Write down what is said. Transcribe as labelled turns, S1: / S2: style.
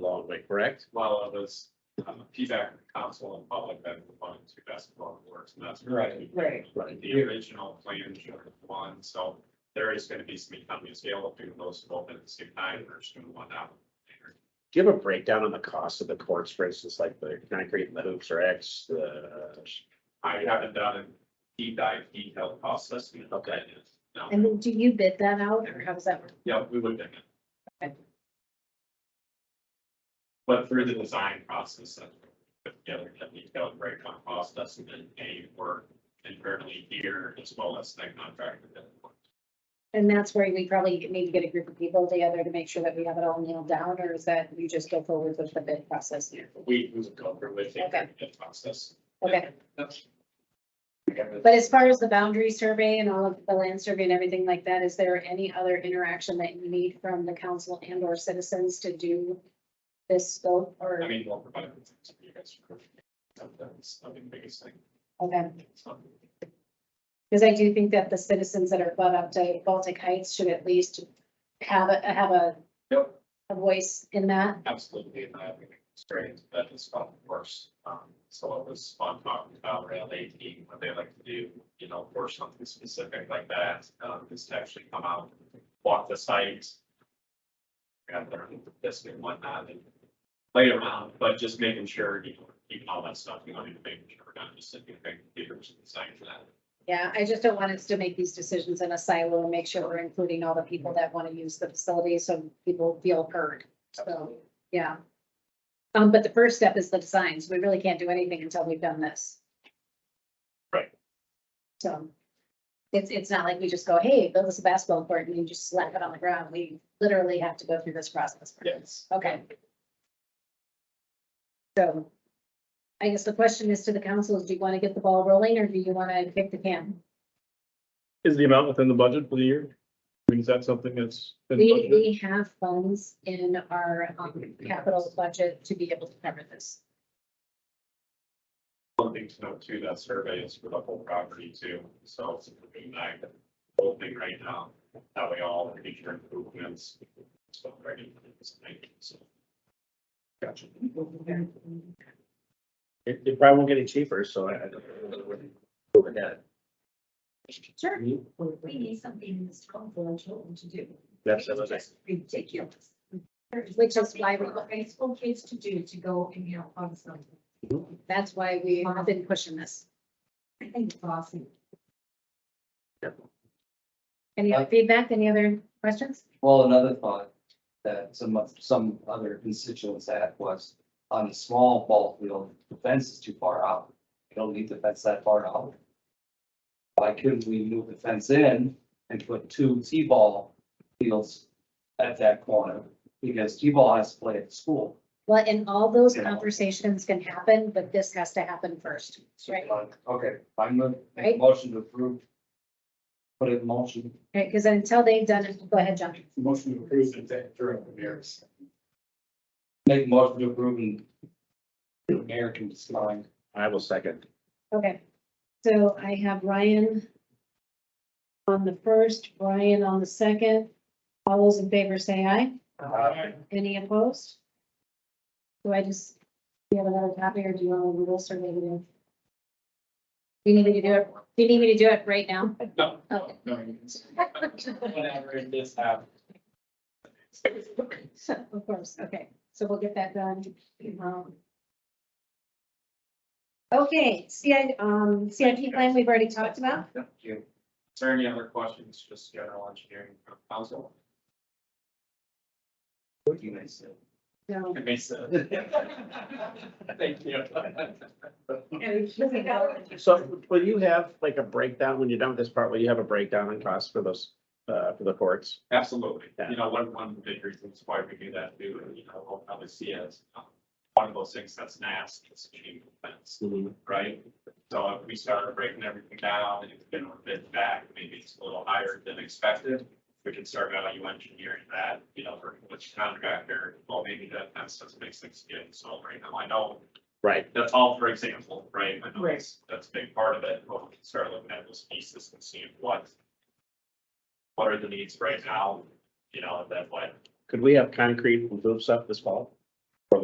S1: public, correct?
S2: Well, it was um, feedback from the council and public that we wanted to best of all works, and that's.
S3: Right.
S4: Right.
S1: Right.
S2: The original plan showed one, so there is gonna be some economy of scale of doing those both at the same time, we're just doing one out. later.
S1: Do you have a breakdown on the cost of the courts, for instance, like the concrete and the hoops or X, uh, the?
S2: I haven't done a deep dive detailed cost estimate. of that yet, No,
S4: And then do you bid that out or how does that work?
S2: yeah, we would. think it.
S4: Okay.
S2: But through the design process, that we put together a detailed breakdown cost estimate, a work internally here as well as that contractor. that-
S4: And that's where we probably need to get a group of people together to make sure that we have it all nailed down or is that you just go forward with the bid process here?
S2: We, we would go through with it,
S4: Okay.
S2: the process.
S4: Okay,
S2: Okay.
S4: but as far as the boundary survey and all of the land survey and everything like that, is there any other interaction that you need from the council and or citizens to do this scope
S2: I
S4: or,
S2: mean, we'll provide it to you guys. for- That's, I think, the biggest thing.
S4: okay?
S2: It's not-
S4: Because I do think that the citizens that are butt up to Baltic Heights should at least have a, have a
S2: Yep.
S4: a voice in that.
S2: absolutely in that experience, but it's felt worse. Um, so it was fun talking about rail eighteen, what they like to do, you know, for something specific like that, um, is to actually come out, walk the site. And learn this and whatnot and play around, but just making sure, you know, keeping all that stuff, you know, and making sure we're not just sitting in computers and signing for that.
S4: Yeah, I just don't want us to make these decisions in a silo and make sure we're including all the people that want to use the facility so people feel heard. So, yeah. Um, but the first step is the design, so we really can't do anything until we've done this.
S1: Right.
S4: So it's, it's not like we just go, hey, build us a basketball court and you just slap it on the ground. We literally have to go through this process. first.
S2: Yes.
S4: Okay. So I guess the question is to the council, is do you want to get the ball rolling or do you want to kick the can?
S5: Is the amount within the budget for the year? I mean, is that something that's? been
S4: We,
S5: budgeted?
S4: we have funds in our um, capital budget to be able to cover this.
S2: One thing to note too, that survey is for the whole property too, so it's a big night, whole thing right now, that way all future improvements. So ready. So, Gotcha.
S1: It, it probably won't get any cheaper, so I. I don't know where to go with that.
S6: Sure, we need something that's confidential to do.
S1: That's
S6: It's
S1: another
S6: just Ridiculous.
S4: Which is why we-
S6: What high school kids to do to go and help on something.
S4: That's why we have been pushing this.
S6: I think it's awesome.
S4: Any other feedback, any other questions?
S7: Well, another thought that some, of- some other constituents had was on the small ball field, the fence is too far out. You don't need the fence that far out. Why couldn't we move the fence in and put two T-ball fields at that corner? Because T-ball has to play at school.
S4: Well, and all those conversations can happen, but this has to happen first. Right.
S7: Okay, I'm gonna make
S4: Right.
S7: a motion to approve. Put it in motion.
S4: Right, because until they've done it, go ahead, John.
S2: Motion to approve and take during the years.
S7: Make a motion to approve and American design.
S1: I will second.
S4: Okay, so I have Ryan on the first, Brian on the second. All those in favor say aye. Any opposed? Do I just, do you have another copy or do you want to Google survey it in? Do you need me to do it, do you need me to do it right now?
S2: No,
S4: Okay.
S2: no, no. you can say Whatever it is uh, happens.
S4: Of course, okay, so we'll get that done. Um, Okay, CI, um, CIP plan we've already talked about.
S7: Thank you.
S2: Is there any other questions, just general engineering from council?
S7: What you may say.
S4: No,
S2: Okay, so. Thank you.
S1: So will you have like a breakdown when you're done with this part, will you have a breakdown on costs for those, uh, for the courts?
S2: Absolutely.
S1: Yeah.
S2: You know, one, one of the big reasons why we do that too, and, you know, we'll probably see it as um, one of those things that's nasty, it's a chain of fence,
S1: Mm-hmm.
S2: right? So if we started breaking everything down and it's been a bit back, maybe it's a little higher than expected. We can start value engineering that, you know, for which contractor, well, maybe that fence doesn't make sense to get installed right now. I know
S1: Right,
S2: that's all for example, right? I know
S6: Right.
S2: that's, that's a big part of it, but we can start looking at those pieces and seeing what. What are the needs right now, you know, that what,
S1: could we have concrete and hoops up this fall?